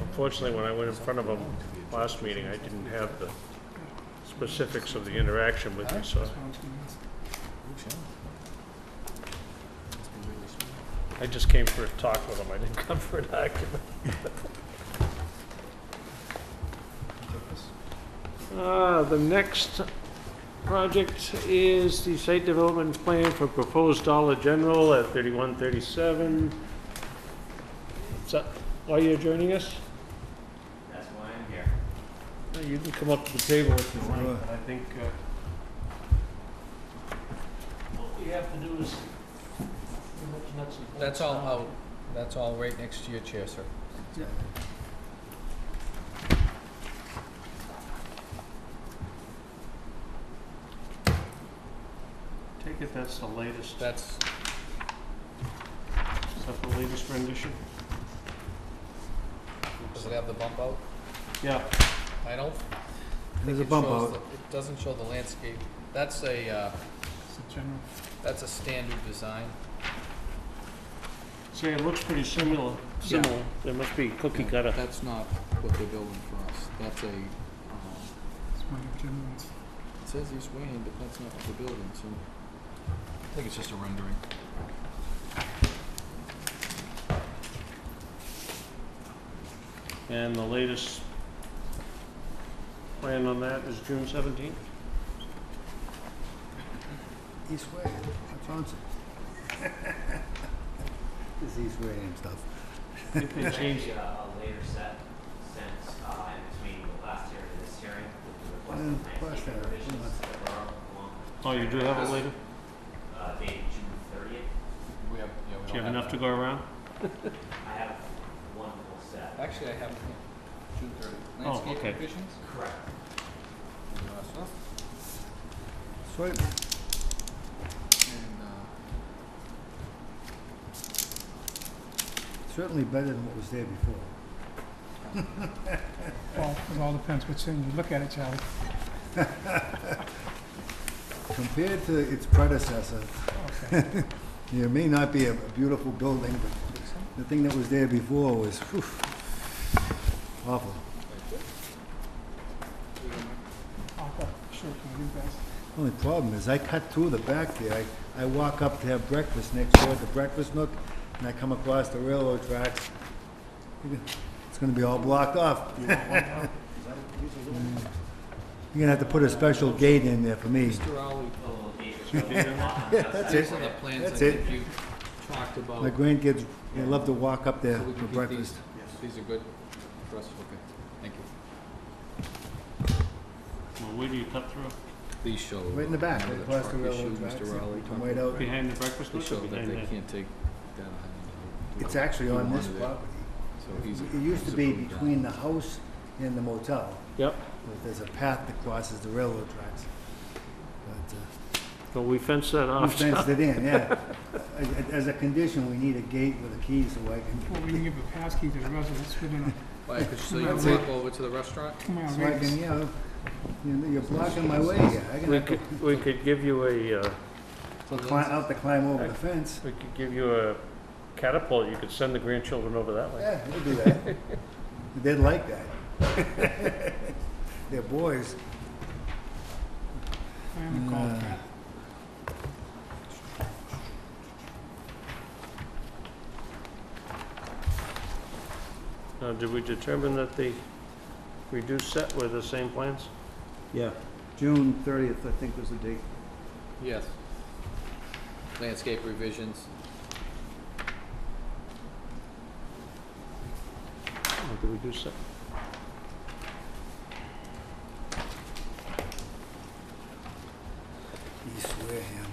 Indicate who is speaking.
Speaker 1: Unfortunately, when I went in front of them last meeting, I didn't have the specifics uh, of the interaction with you, so I just came for a talk with them. I didn't come for an argument. Uh, The next project is the site development plan for proposed Dollar General at 3137. Is that why you're joining us?
Speaker 2: That's why I'm here.
Speaker 1: Uh, You can come up to the table if you want,
Speaker 3: Sure.
Speaker 1: but I think uh, what we have to do is...
Speaker 4: That's all out, that's all right next to your chair, sir.
Speaker 1: Take it that's the latest, is
Speaker 4: That's,
Speaker 1: that the latest rendition?
Speaker 4: does it have the bump out?
Speaker 1: Yeah,
Speaker 4: I don't think
Speaker 3: There's a
Speaker 4: it
Speaker 3: bump
Speaker 4: shows, the-
Speaker 3: out.
Speaker 4: it doesn't show the landscape. That's a, uh, that's a standard design.
Speaker 1: see, it looks pretty similar, similar. There must be cookie cutter.
Speaker 4: That's not what they're building for us. That's a, um, it says East Wayne, but that's not what they're building, so. I think it's just a rendering.
Speaker 1: And the latest plan on that is June 17th?
Speaker 3: East Way, I found it. It's East Way and stuff.
Speaker 1: If they change
Speaker 2: Actually, uh, a later set since, uh, in between the last hearing and this hearing, with the
Speaker 3: Mm,
Speaker 2: request
Speaker 3: plus
Speaker 2: of
Speaker 3: that,
Speaker 2: landscape revisions
Speaker 3: mm.
Speaker 2: that were along,
Speaker 1: Oh, you do have it later?
Speaker 2: uh, dated June thirtieth.
Speaker 4: We have, yeah, we don't have.
Speaker 1: Do you have enough to go around?
Speaker 2: I have one whole set.
Speaker 4: Actually, I have, June thirty.
Speaker 1: Oh,
Speaker 4: Landscape
Speaker 1: okay.
Speaker 4: revisions?
Speaker 2: Correct.
Speaker 4: Uh, stuff.
Speaker 3: Sweet.
Speaker 4: And, uh,
Speaker 3: Certainly better than what was there before.
Speaker 5: Well, it all depends which thing you look at it, Charlie.
Speaker 3: Compared to its predecessor, it may not be a beautiful building, but the thing that was there before was whew, awful.
Speaker 5: I'll go, sure, can you guys?
Speaker 3: Only problem is, I cut through the back there. I, I walk up to have breakfast next door at the breakfast nook, and I come across the railroad tracks. It's gonna be all blocked off. You're gonna have to put a special gate in there for me.
Speaker 4: Mr. Rowley,
Speaker 2: A little date which
Speaker 3: Yeah, that's
Speaker 4: These
Speaker 3: it.
Speaker 4: are the plans I
Speaker 3: That's it.
Speaker 4: think you talked about.
Speaker 3: My grandkids, they love to walk up there
Speaker 4: So we
Speaker 3: for
Speaker 4: can keep
Speaker 3: breakfast.
Speaker 4: These are good for us, okay, thank you.
Speaker 1: Well, where do you cut through?
Speaker 4: These show.
Speaker 3: Right in the back,
Speaker 4: remember
Speaker 3: right across the
Speaker 4: truck issue,
Speaker 3: railroad
Speaker 4: Mr.
Speaker 3: tracks.
Speaker 4: Rowley
Speaker 3: you come
Speaker 4: talked
Speaker 3: right
Speaker 4: about.
Speaker 3: out.
Speaker 1: Behind the breakfast
Speaker 4: They
Speaker 1: nook
Speaker 4: show
Speaker 1: or
Speaker 4: that
Speaker 1: behind
Speaker 4: they
Speaker 1: the...
Speaker 4: can't take that island.
Speaker 3: It's actually on this
Speaker 4: Monitor.
Speaker 3: property.
Speaker 4: So he's.
Speaker 3: It used to
Speaker 4: he's
Speaker 3: be
Speaker 4: approved that.
Speaker 3: between the house and the motel,
Speaker 1: Yep,
Speaker 3: but there's a path that crosses the railroad tracks. But, uh,
Speaker 1: but we fenced that
Speaker 3: We
Speaker 1: off.
Speaker 3: fenced it in, yeah. As- As a condition, we need a gate with a key so I can,
Speaker 5: Well, we can give a pass key to the residents within
Speaker 4: Why, 'cause so you
Speaker 5: That's
Speaker 4: can walk over to the restaurant?
Speaker 5: a two-mile
Speaker 3: so I
Speaker 5: radius.
Speaker 3: can, you know, you know, you're blocking my way here. I can
Speaker 1: We
Speaker 3: have to
Speaker 1: could, we could give you a, uh,
Speaker 4: So that's-
Speaker 3: climb, out to climb over the fence.
Speaker 1: we could give you a catapult, you could send the grandchildren over that way.
Speaker 3: Yeah, we'll do that. They'd like that. They're boys.
Speaker 5: I am a golf cat.
Speaker 1: Now, did we determine that the reduced set were the same plans?
Speaker 6: Yeah, June thirtieth, I think was the date.
Speaker 4: Yes. Landscape revisions,
Speaker 1: Or did we do set?
Speaker 3: East Wareham.